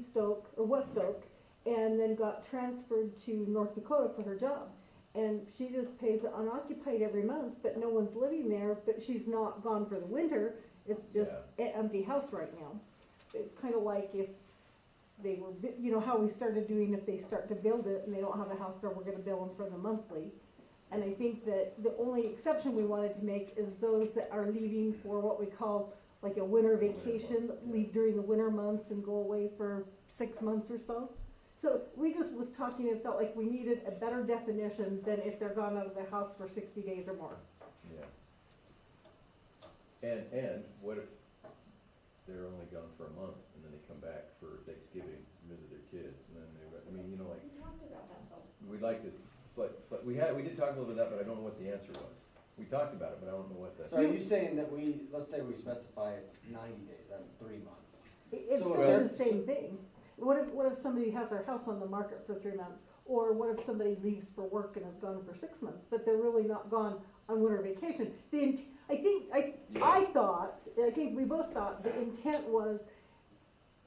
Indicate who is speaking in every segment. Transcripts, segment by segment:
Speaker 1: Stoke, or West Stoke, and then got transferred to North Dakota for her job. And she just pays it unoccupied every month, but no one's living there, but she's not gone for the winter, it's just an empty house right now. It's kinda like if they were, bu- you know, how we started doing, if they start to build it and they don't have a house there, we're gonna bill them for the monthly. And I think that the only exception we wanted to make is those that are leaving for what we call like a winter vacation, leave during the winter months and go away for six months or so. So we just was talking and felt like we needed a better definition than if they're gone out of their house for sixty days or more.
Speaker 2: Yeah. And, and what if they're only gone for a month and then they come back for Thanksgiving, visit their kids, and then they, I mean, you know, like,
Speaker 3: We talked about that though.
Speaker 2: we'd like to, but, but we had, we did talk a little bit about that, but I don't know what the answer was. We talked about it, but I don't know what the.
Speaker 4: So are you saying that we, let's say we specify it's ninety days, that's three months.
Speaker 1: It- It's
Speaker 4: So,
Speaker 1: still
Speaker 4: uh,
Speaker 1: the same thing. What if, what if somebody has their house on the market for three months? Or what if somebody leaves for work and is gone for six months, but they're really not gone on winter vacation? The, int- I think, I, I thought, I think we both thought, the intent was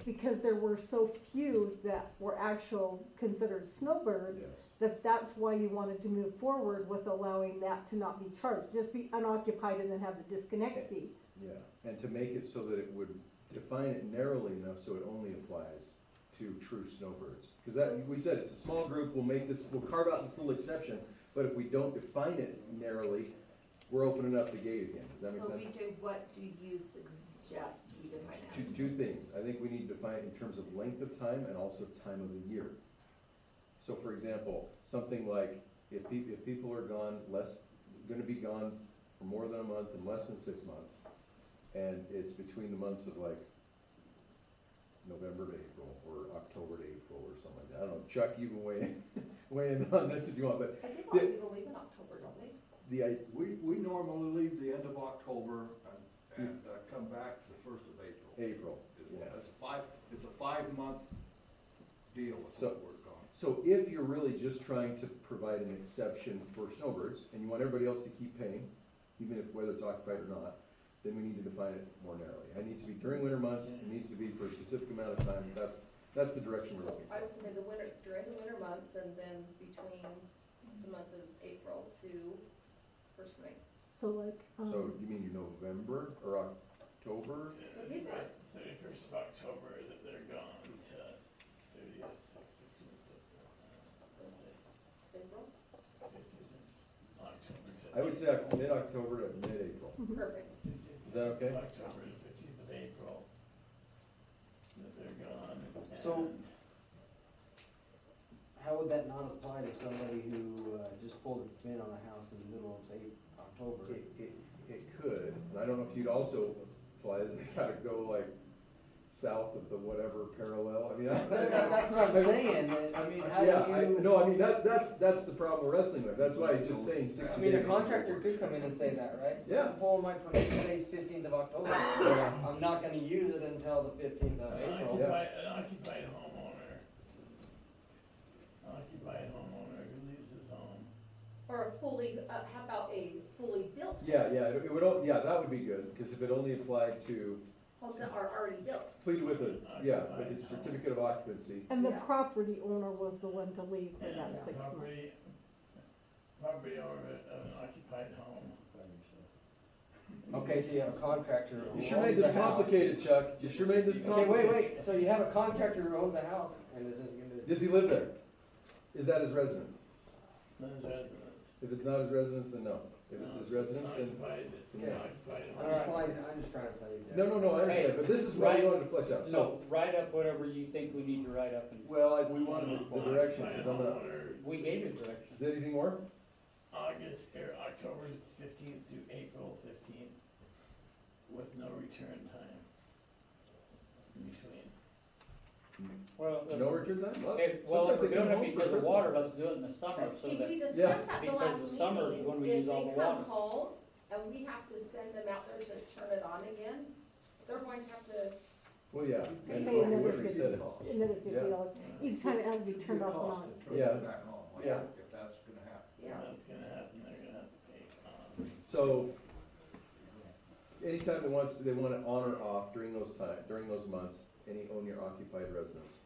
Speaker 1: because there were so few that were actual considered snowbirds,
Speaker 2: Yes.
Speaker 1: that that's why you wanted to move forward with allowing that to not be charged, just be unoccupied and then have the disconnect fee.
Speaker 2: Yeah, and to make it so that it would define it narrowly enough so it only applies to true snowbirds. Because that, we said it's a small group, we'll make this, we'll carve out this little exception, but if we don't define it narrowly, we're opening up the gate again. Does that make
Speaker 3: So
Speaker 2: sense?
Speaker 3: BJ, what do you suggest we define
Speaker 2: Two,
Speaker 3: as?
Speaker 2: two things, I think we need to define it in terms of length of time and also time of the year. So for example, something like, if people, if people are gone less, gonna be gone for more than a month and less than six months, and it's between the months of like November to April, or October to April, or something like that, I don't know, Chuck, you can weigh, in- weigh in on this if you want, but
Speaker 3: I think a lot of people leave in October, don't they?
Speaker 2: the, I,
Speaker 5: We, we normally leave the end of October and, and uh, come back the first of April.
Speaker 2: April,
Speaker 5: It's
Speaker 2: yeah.
Speaker 5: it's a five, it's a five-month deal with
Speaker 2: So-
Speaker 5: what we're gone.
Speaker 2: So if you're really just trying to provide an exception for snowbirds, and you want everybody else to keep paying, even if whether it's occupied or not, then we need to define it more narrowly. It needs to be during winter months, it needs to be for a specific amount of time, that's, that's the direction we're
Speaker 6: So
Speaker 2: looking
Speaker 6: I was
Speaker 2: for.
Speaker 6: gonna say the winter, during the winter months and then between the month of April to first May.
Speaker 1: So like,
Speaker 2: So
Speaker 1: um,
Speaker 2: you mean November or October?
Speaker 6: Right.
Speaker 7: Thirty-first of October, that they're gone to thirtieth, fifteenth of,
Speaker 6: April,
Speaker 7: fifteenth of October to.
Speaker 2: I would say Oc- mid-October to mid-April.
Speaker 6: perfect.
Speaker 7: Is
Speaker 2: that okay?
Speaker 7: October to fifteenth of April, that they're gone.
Speaker 4: So-
Speaker 7: and-
Speaker 4: How would that not apply to somebody who uh, just pulled a bid on a house in the middle of eight, October?
Speaker 2: It, it, it could, and I don't know if you'd also apply, that they gotta go like south of the whatever parallel, I mean, I-
Speaker 4: But that- That's what I'm saying, that- I mean, how
Speaker 2: Yeah, I,
Speaker 4: do you,
Speaker 2: no, I mean, that, that's, that's the problem we're wrestling with, that's why I'm just saying sixty days.
Speaker 4: I mean, a contractor could come in and say that, right?
Speaker 2: Yeah.
Speaker 4: I'm pulling my permit today's fifteenth of October, I'm not gonna use it until the fifteenth
Speaker 7: An
Speaker 4: of uh, April.
Speaker 7: occupied, an occupied homeowner. An Occupied homeowner who leaves his home.
Speaker 6: Or a fully, uh, how about a fully built,
Speaker 2: Yeah, yeah, it it would, al- yeah, that would be good, because if it only applied to,
Speaker 6: homes that are already built?
Speaker 2: plead with a, yeah, with a certificate of occupancy,
Speaker 1: and the
Speaker 6: Yeah.
Speaker 1: property owner was the one to leave for that
Speaker 7: and
Speaker 1: six months.
Speaker 7: Property, property owner of an occupied home.
Speaker 4: Okay, so you have a contractor who
Speaker 2: you
Speaker 4: owns
Speaker 2: sure made
Speaker 4: the
Speaker 2: this
Speaker 4: house.
Speaker 2: complicated, Chuck, you sure made this
Speaker 4: Okay, wait,
Speaker 2: complicated.
Speaker 4: wait, so you have a contractor who owns a house and isn't gonna.
Speaker 2: Does he live there? Is that his residence?
Speaker 7: Not his residence.
Speaker 2: If it's not his residence, then no, if it's his residence, then,
Speaker 7: Occupied,
Speaker 2: yeah.
Speaker 7: occupied
Speaker 4: I'm
Speaker 7: home.
Speaker 4: just playing, I'm just trying to play. devil's
Speaker 2: no, no, no, I understand, but this is what we
Speaker 8: Right.
Speaker 2: wanted to flesh out, so,
Speaker 8: So write up whatever you think we need to write up and,
Speaker 2: well, I, we wanted the direction,
Speaker 7: Occupied
Speaker 2: because I'm not,
Speaker 7: homeowner,
Speaker 8: we gave you direction.
Speaker 2: is there anything more?
Speaker 7: August, or October fifteenth through April fifteenth, with no return time in between.
Speaker 8: Well,
Speaker 2: No
Speaker 8: if-
Speaker 2: return time, well,
Speaker 8: if, well, if
Speaker 2: sometimes
Speaker 8: we're
Speaker 2: they come
Speaker 8: doing
Speaker 2: home
Speaker 8: it
Speaker 2: for
Speaker 8: because of
Speaker 2: Christmas.
Speaker 8: water, let's do it in the summer
Speaker 6: But
Speaker 8: so
Speaker 6: see, we
Speaker 8: that,
Speaker 6: discussed that the
Speaker 8: Because
Speaker 6: last
Speaker 8: the
Speaker 6: meeting.
Speaker 8: summer is when we
Speaker 6: If
Speaker 8: use all the
Speaker 6: they come
Speaker 8: water.
Speaker 6: home and we have to send them out there to turn it on again, they're going to have to,
Speaker 2: Well, yeah.
Speaker 1: Pay
Speaker 2: and
Speaker 1: another
Speaker 2: whoever
Speaker 1: fifty
Speaker 2: said it.
Speaker 5: Cost.
Speaker 1: Another fifty
Speaker 2: Yeah.
Speaker 1: dollars, each time it has to be turned off and on.
Speaker 5: Turn
Speaker 2: Yeah.
Speaker 5: it back on, like,
Speaker 2: Yeah.
Speaker 5: if that's gonna happen.
Speaker 6: yes.
Speaker 7: That's gonna happen, they're gonna have to pay, um,
Speaker 2: So, anytime they wants, they want it on or off during those time, during those months, any owner occupied residence